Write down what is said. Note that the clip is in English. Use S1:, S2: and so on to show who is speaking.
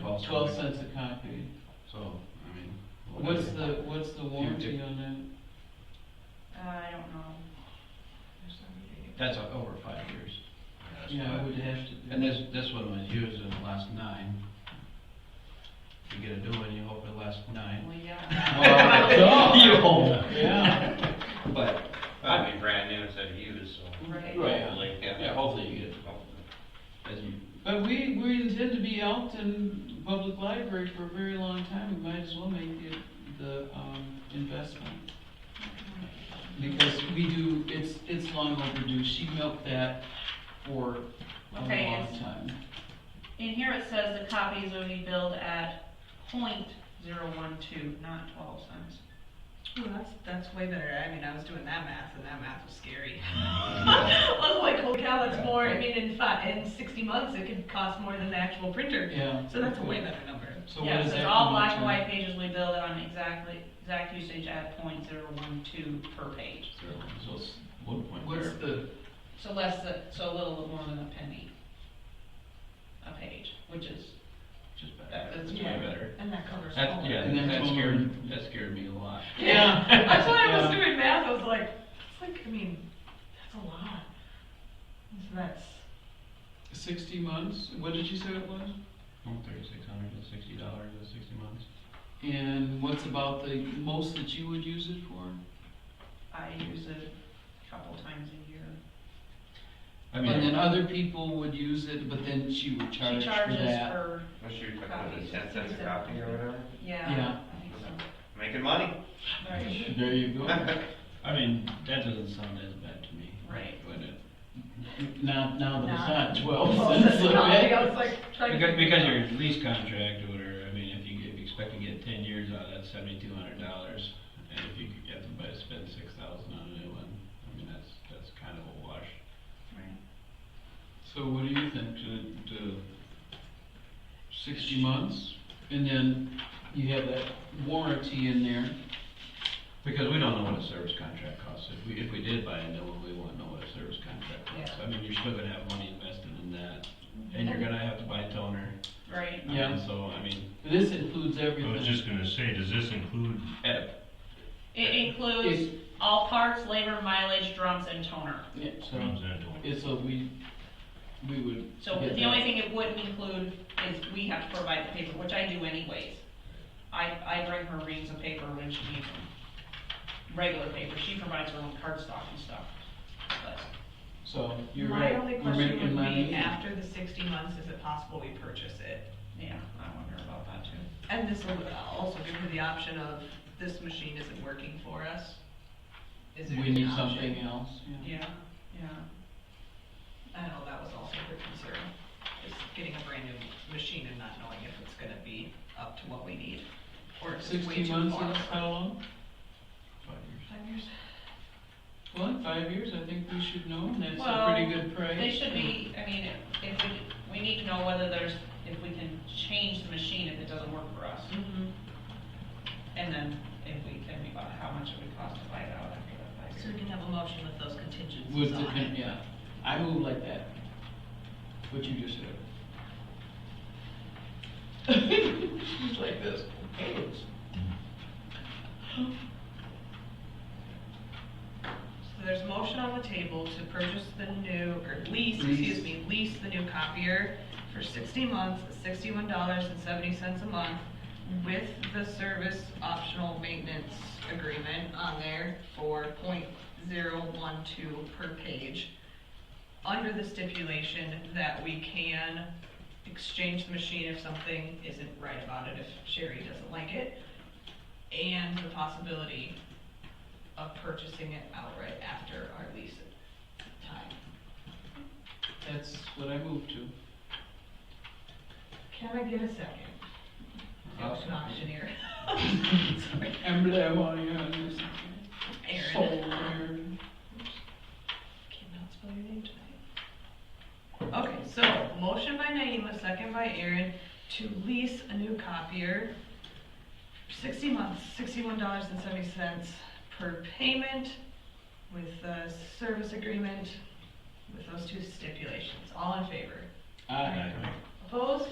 S1: cost. of
S2: twelve
S1: it.
S2: cents a copy.
S1: So, I mean.
S2: What's the, what's the warranty
S1: did-
S2: on that?
S3: Uh, I don't know.
S1: That's o- over five years.
S2: Yeah, I would have to. do
S1: And this,
S2: that.
S1: this one was used in the last nine. You get a new one, you hope it lasts nine.
S3: Well, yeah.
S2: Wow.
S1: You hope.
S2: Yeah,
S1: But, uh,
S4: I'd be brand new instead of used, so.
S1: Right.
S4: Hopefully,
S1: yeah, hopefully you get, as you,
S2: but we, we intend to be out in public library for a very long time, we might as well make the, the, um, investment. Because we do, it's, it's long overdue, she milked that for a
S3: Okay,
S2: long
S3: it's-
S2: time.
S3: In here it says the copies will be billed at point zero one two, not twelve cents.
S5: Ooh, that's, that's way better. I mean, I was doing that math and that math was scary.
S1: uh,
S5: I was like, oh cow, that's more, I mean, in five, in sixty months, it could cost more than the actual printer.
S2: Yeah.
S5: So that's a way better number.
S2: So what
S3: Yeah,
S2: is
S3: so
S2: that?
S3: it's all
S2: come
S3: black and
S2: to?
S3: white pages will be billed on exactly, exact usage at point zero one two per page.
S1: so it's one point
S2: What's
S1: there.
S2: the,
S3: So less than, so a little more than a penny a page, which is,
S1: Just better.
S3: That's
S1: It's way
S3: yeah.
S1: better.
S5: And that covers all
S1: That,
S5: of it.
S1: yeah,
S2: And that's
S1: that
S2: one
S1: scared,
S2: word.
S1: that scared me a lot.
S2: yeah.
S5: That's why I was
S2: Yeah.
S5: doing math, I was like, it's like, I mean, that's a lot. So that's,
S2: Sixty months, what did you say it was?
S1: Thirty-six hundred and sixty dollars in sixty months.
S2: And what's about the most that you would use it for?
S3: I use it a couple times a year.
S1: I
S2: And then
S1: mean,
S2: other people would use it, but then she would charge
S3: She
S2: for
S3: charges
S2: that.
S3: for,
S4: What's your, what is it, ten cents a copy or whatever?
S3: yeah,
S2: Yeah.
S3: I think so.
S4: Making money.
S3: Right.
S2: There you go.
S1: I mean, that doesn't sound as bad to me.
S3: Right.
S1: But it-
S2: Now, now that
S5: Nah.
S2: it's not
S3: Oh,
S2: twelve
S5: Well,
S2: cents
S5: that's
S2: a
S5: not- I
S2: bit.
S5: was like, trying to.
S1: Because, because your lease contract or whatever, I mean, if you, if you expect to get ten years out, that's seventy-two hundred dollars. And if you could get them by spend six thousand on a new one, I mean, that's, that's kind of a wash.
S2: So what do you think, to, to sixty months? And then you have that warranty in there.
S1: Because we don't know what a service contract costs. If we, if we did buy a new one, we wouldn't know what a service contract costs. I mean, you're still gonna have money invested in that, and you're gonna have to buy toner.
S3: Right,
S1: I mean,
S2: Yeah.
S1: So, I mean,
S2: This includes
S6: I was
S2: everything.
S6: just gonna say, does this include,
S1: eh,
S3: it includes all parts, labor, mileage, drums, and toner.
S2: Yeah, so,
S6: comes into it?
S2: it's a, we, we would.
S3: So
S2: get
S3: the
S2: that.
S3: only thing it wouldn't include is we have to provide the paper, which I do anyways. I, I bring her reams of paper when she needs them. Regular paper, she provides her own cardstock and stuff, but.
S2: So, you're
S5: My
S2: right.
S5: only
S2: We're making
S5: question would
S2: money.
S5: be, after the sixty months, is it possible we purchase it?
S3: Yeah, I wonder about that too.
S5: And this will also give her the option of, this machine isn't working for us. Is there
S2: We
S5: an
S2: need
S5: option?
S2: something else, yeah.
S3: Yeah, yeah.
S5: I know that was also her concern, is getting a brand new machine and not knowing if it's gonna be up to what we need, or if it's way
S2: Sixty
S5: too
S2: months, and
S5: far.
S2: how long?
S1: five years.
S5: Five years?
S2: Well, in five years, I think we should know, and that's a
S3: Well,
S2: pretty good price.
S3: They should be, I mean, if we, we need to know whether there's, if we can change the machine if it doesn't work for us.
S5: Mm-hmm.
S3: And then if we can, we buy, how much it would cost to buy it out after that five
S5: So we
S3: years.
S5: can have a motion with those
S2: With
S5: contingencies
S2: the,
S5: on
S2: con-
S5: it.
S2: yeah, I move like that, what you just said. It's like this.
S5: So there's motion on the table to purchase the new, or lease,
S2: Lease.
S5: excuse me, lease the new copier for sixty months, sixty-one dollars and seventy cents a month with the service optional maintenance agreement on there for point zero one two per page. Under the stipulation that we can exchange the machine if something isn't right about it, if Sherry doesn't like it. And the possibility of purchasing it outright after our lease time.
S2: That's what I moved to.
S5: Can I get a second? I was an auctioneer. Sorry,
S2: Emblem on your
S5: Aaron.
S2: shoulder.
S5: Cannot spell your name tonight. Okay, so motion by Naima, second by Aaron, to lease a new copier. Sixty months, sixty-one dollars and seventy cents per payment with the service agreement with those two stipulations. All in favor?
S2: Aye.
S5: Opposed?